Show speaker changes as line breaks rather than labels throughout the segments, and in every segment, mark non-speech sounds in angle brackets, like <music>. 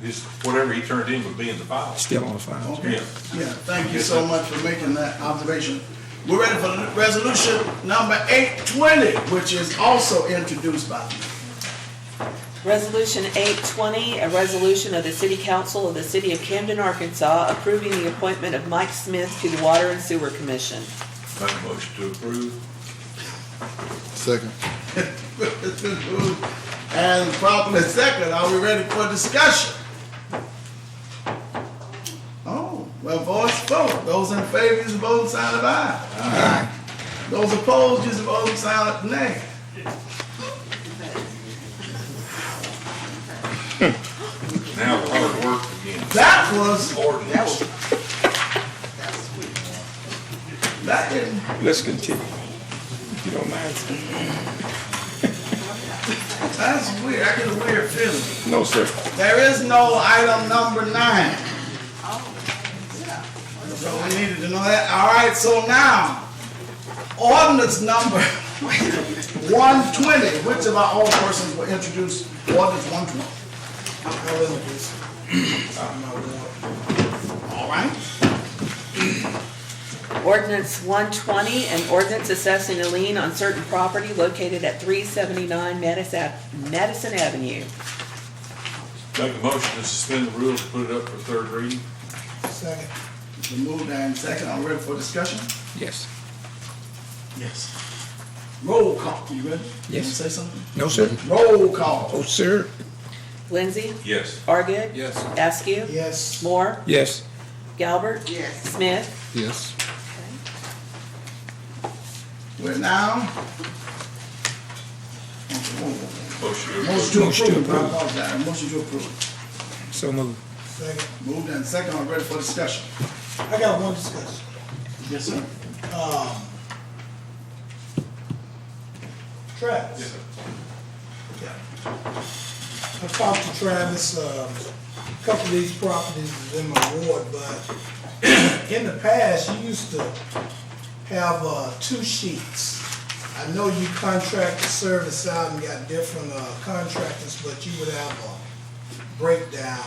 his, whatever he turned in would be in the file.
still on file.
Yeah.
Yeah.
Yeah, thank you so much for making that observation. We're ready for the resolution number eight twenty, which is also introduced by me. <laughs>
Resolution 820, a resolution of the City Council of the City of Camden, Arkansas, approving the appointment of Mike Smith to the Water and Sewer Commission.
Make a motion to approve.
Second.
And properly second, are we ready for discussion? Oh, well, voice vote. Those in favor, use the voting sign of aye. Aye. Those opposed, use the voting sign of nay.
Now, hard work begins.
That was,
Ordinance.
that didn't,
Let's continue, if you don't mind.
that's weird. I get a weird feeling.
No, sir.
There is no item number nine. So we needed to know that. All right, so now, ordinance number one twenty, which of our old persons will introduce ordinance one twenty? All right,
Ordinance 120, an ordinance assessing a lien on certain property located at 379 Madison Ave- Madison Avenue.
Make a motion to suspend the rules, put it up for third reading.
the move and second, I'm ready for discussion?
Yes.
Yes. Roll call, you ready? You
Yes.
wanna Say something?
No, sir.
Roll call.
Oh, sir.
Lindsay?
Yes.
Argid?
Yes.
Askew?
Yes.
Moore?
Yes.
Galbert?
Yes.
Smith?
Yes.
We're now.
Motion to approve.
Motion to
Motion to
approve, I
approve.
apologize, motion to approve.
So moved.
Moved and second, I'm ready for discussion.
I got one discussion.
Yes, sir.
Yes, sir.
Travis, I talked to Travis, um, a couple of these properties is in my ward, but <clears throat> in the past, you used to have, uh, two sheets. I know you contracted service out and got different, uh, contractors, but you would have a breakdown.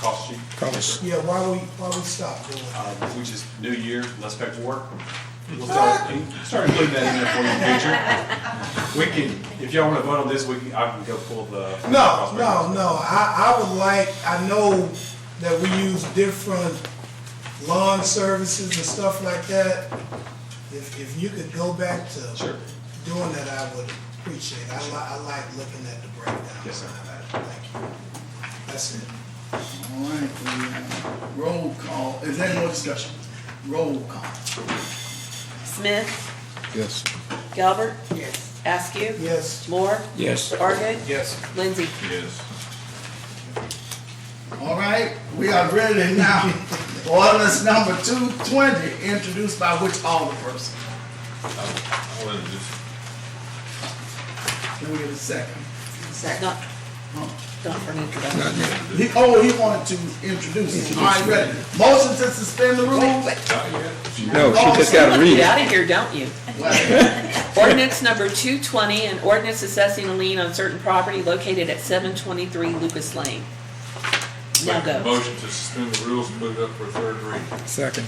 cost sheet.
Cost.
Yeah, why we, why we stop doing that?
Uh, we just, new year, less paperwork. We'll start, start including that in there for you in the future. We can, if y'all wanna vote on this, we can, I can go pull the.
No, no, no, I, I would like, I know that we use different lawn services and stuff like that. If, if you could go back to
Sure.
doing that, I would appreciate it. I li, I like looking at the breakdown.
Yes, sir.
Thank you. That's it.
All right, we, uh, roll call, is there any more discussion? Roll call.
Smith?
Yes.
Galbert?
Yes.
Askew?
Yes.
Moore?
Yes.
Argid?
Yes.
Lindsay?
Yes.
All right, we are ready <laughs> now. Ordinance number two twenty, introduced by which alderperson?
I wanted to just
Can we get a second?
Not, not for an introduction.
Not yet.
He, oh, he wanted to introduce it. All right, ready. Motion to suspend the
Wait,
rules?
wait.
No, she just gotta read
Get
it.
out of here, don't you? Ordinance number 220, an ordinance assessing a lien on certain property located at 723 Lucas Lane. Now
make a
go.
motion to suspend the rules, put it up for third reading.
Second.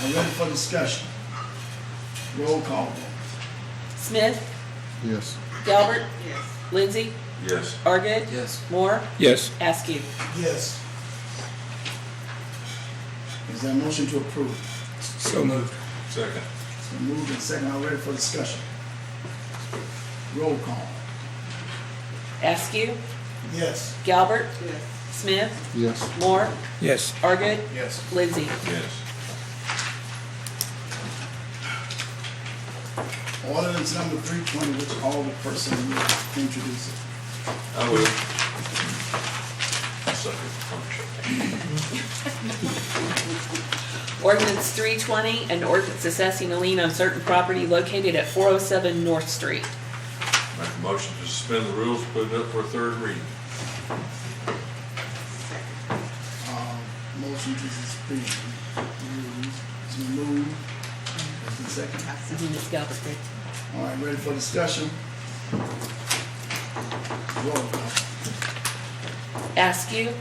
I'm ready for discussion. Roll call.
Smith?
Yes.
Galbert? Lindsay?
Yes.
Argid? Yes. Moore?
Yes.
Askew?
Yes.
Is there a motion to approve?
So moved.
Second.
It's been moved and second. I'm ready for discussion. Roll call.
Askew?
Yes.
Galbert? Smith?
Yes.
Moore?
Yes.
Argid?
Yes.
Lindsay?
Yes.
Ordinance number three twenty, which all the person will introduce it.
I will. Second.
Ordinance 320, an ordinance assessing a lien on certain property located at 407 North Street.
Make a motion to suspend the rules, put it up for third reading.
Um, motion to suspend rules. It's been moved. It's been seconded.
Mhm, it's Galbert, right?
All right, ready for discussion? Roll call.
Askew?